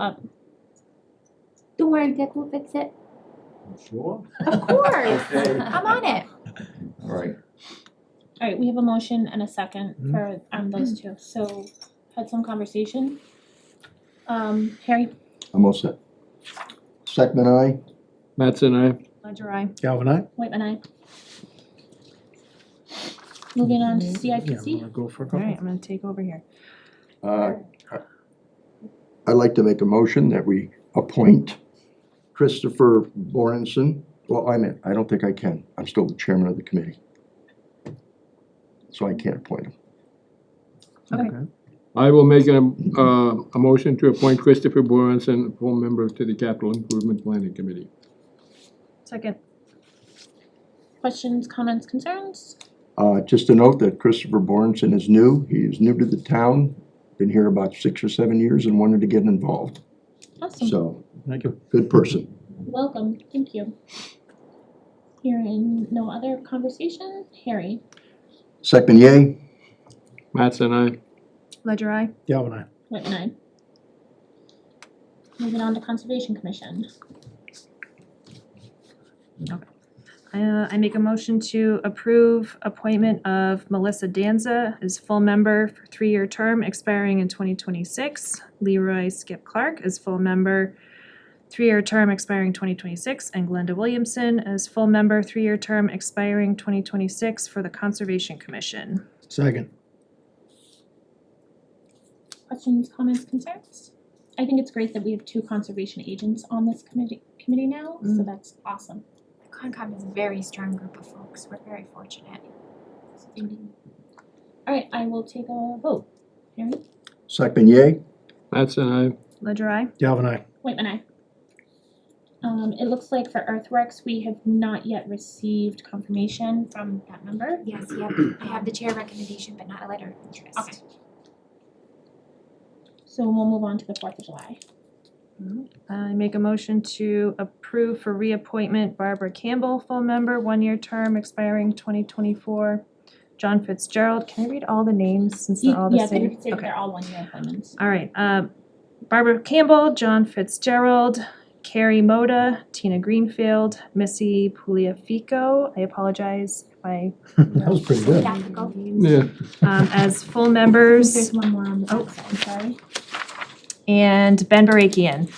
Um, don't worry, Dick, we'll fix it. Sure. Of course. Okay. I'm on it. All right, All right, we have a motion and a second Hmm? for um those two, so had some conversation. Um, Harry, I'm all set. Second, aye? Mattson, aye. Ledger, I, Galvin, I. Whitman, I. Moving on to CIPC, Go for a All couple. right, I'm gonna take over here. Uh, I'd like to make a motion that we appoint Christopher Borenson. Well, I meant, I don't think I can. I'm still the chairman of the committee. So I can't appoint him. Okay. I will make a, uh, a motion to appoint Christopher Boranson, full member to the Capital Improvement Planning Committee. Second, questions, comments, concerns? Uh, Just to note that Christopher Borenson is new. He is new to the town, been here about six or seven years and wanted to get involved. Awesome, So, Thank you. good person. welcome, thank you. Hearing no other conversation, Harry, Second, yay? Mattson, aye. ledger I. Galvin, I. Whitman, I. Moving on to Conservation Commission, Uh, I make a motion to approve appointment of Melissa Danza as full member for three-year term expiring in twenty twenty-six. Leroy Skip Clark as full member, three-year term expiring twenty twenty-six, and Glenda Williamson as full member, three-year term expiring twenty twenty-six for the Conservation Commission. Second. questions, comments, concerns? I think it's great that we have two conservation agents on this committee, committee now, so Mm. that's awesome. Concom is a very strong group of folks. We're very fortunate. Alright, I will take a vote. Harry, Second, yay? Mattson, aye. Ledger I. Galvin, I. Whitman, I. Um, it looks like for Earthworks, we have not yet received confirmation from that member. Yes, yeah, I have the chair recommendation, but not a letter of interest. Okay. So we'll move on to the Fourth of July. I make a motion to approve for reappointment Barbara Campbell, full member, one-year term expiring twenty twenty-four. John Fitzgerald, can I read all the names since they're all the Yeah, same? they're, they're- Okay. they're all one-year appointments. All right, um, Barbara Campbell, John Fitzgerald, Carrie Moda, Tina Greenfield, Missy Pugliafico, I apologize if I, That was pretty good. Tactical. Yeah, um, as full There's members, one more on the Oh. backside, sorry. and Ben Barakian,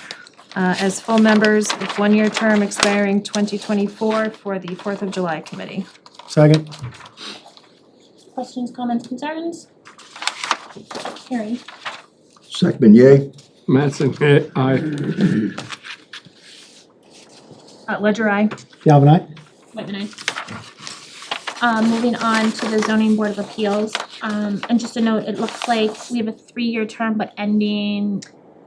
uh, as full members with one-year term expiring twenty twenty-four for the Fourth of July Committee. Second. Questions, comments, concerns? Harry, Second, yay? Mattson, eh, aye. Uh, ledger I. Galvin, I. Whitman, I. Um, moving on to the zoning board of appeals, um, and just a note, it looks like we have a three-year term, but ending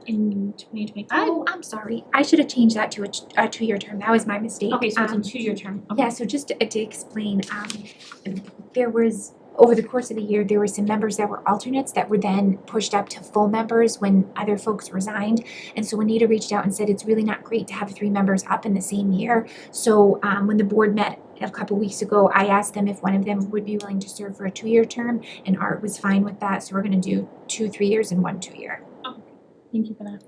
in twenty twenty-five. Oh, I'm sorry. I should have changed that to a, ch- a two-year term. That was my mistake. Okay, so it's a Um, two-year term, okay. Yeah, so just to to explain, um, there was, over the course of the year, there were some members that were alternates that were then pushed up to full members when other folks resigned. And so Anita reached out and said, it's really not great to have three members up in the same year. So, um, when the board met a couple weeks ago, I asked them if one of them would be willing to serve for a two-year term, and Art was fine with that, so we're gonna do two, three years and one two-year. Thank you for that.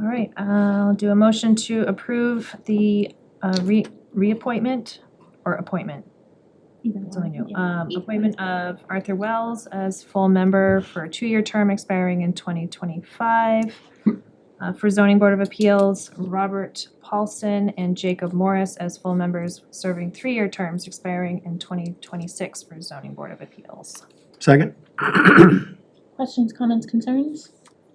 All right, I'll do a motion to approve the, uh, re- reappointment or appointment. Either That's all I one, knew. yeah. Um, appointment of Arthur Wells as full member for a two-year term expiring in twenty twenty-five. Uh, for zoning board of appeals, Robert Paulson and Jacob Morris as full members serving three-year terms expiring in twenty twenty-six for zoning board of appeals. Second. Questions, comments, concerns?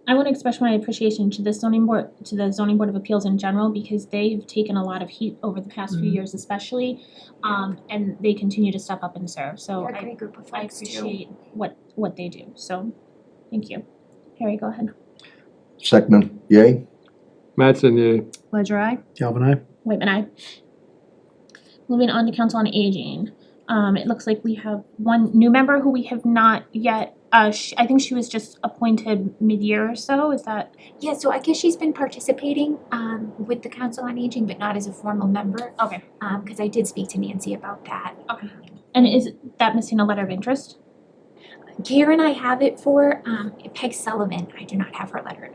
I want to express my appreciation to the zoning board, to the zoning board of appeals in general, because they've taken a lot of heat over the past few Mm-hmm. Mhm. years especially. Um, and they continue to step up and serve, so They're a Oh, I, great group of I folks too. appreciate what, what they do, so, thank you. Harry, go ahead. Second, yay? Mattson, yay. Ledger I. Galvin, I. Whitman, I. Moving on to Council on Aging. Um, it looks like we have one new member who we have not yet, uh, sh I think she was just appointed mid-year or so, is that? Yeah, so I guess she's been participating, um, with the Council on Aging, but not as a formal member. Okay. Um, cause I did speak to Nancy about that. And is that missing a letter of interest? Karen I have it for, um, Peg Sullivan, I do not have her letter of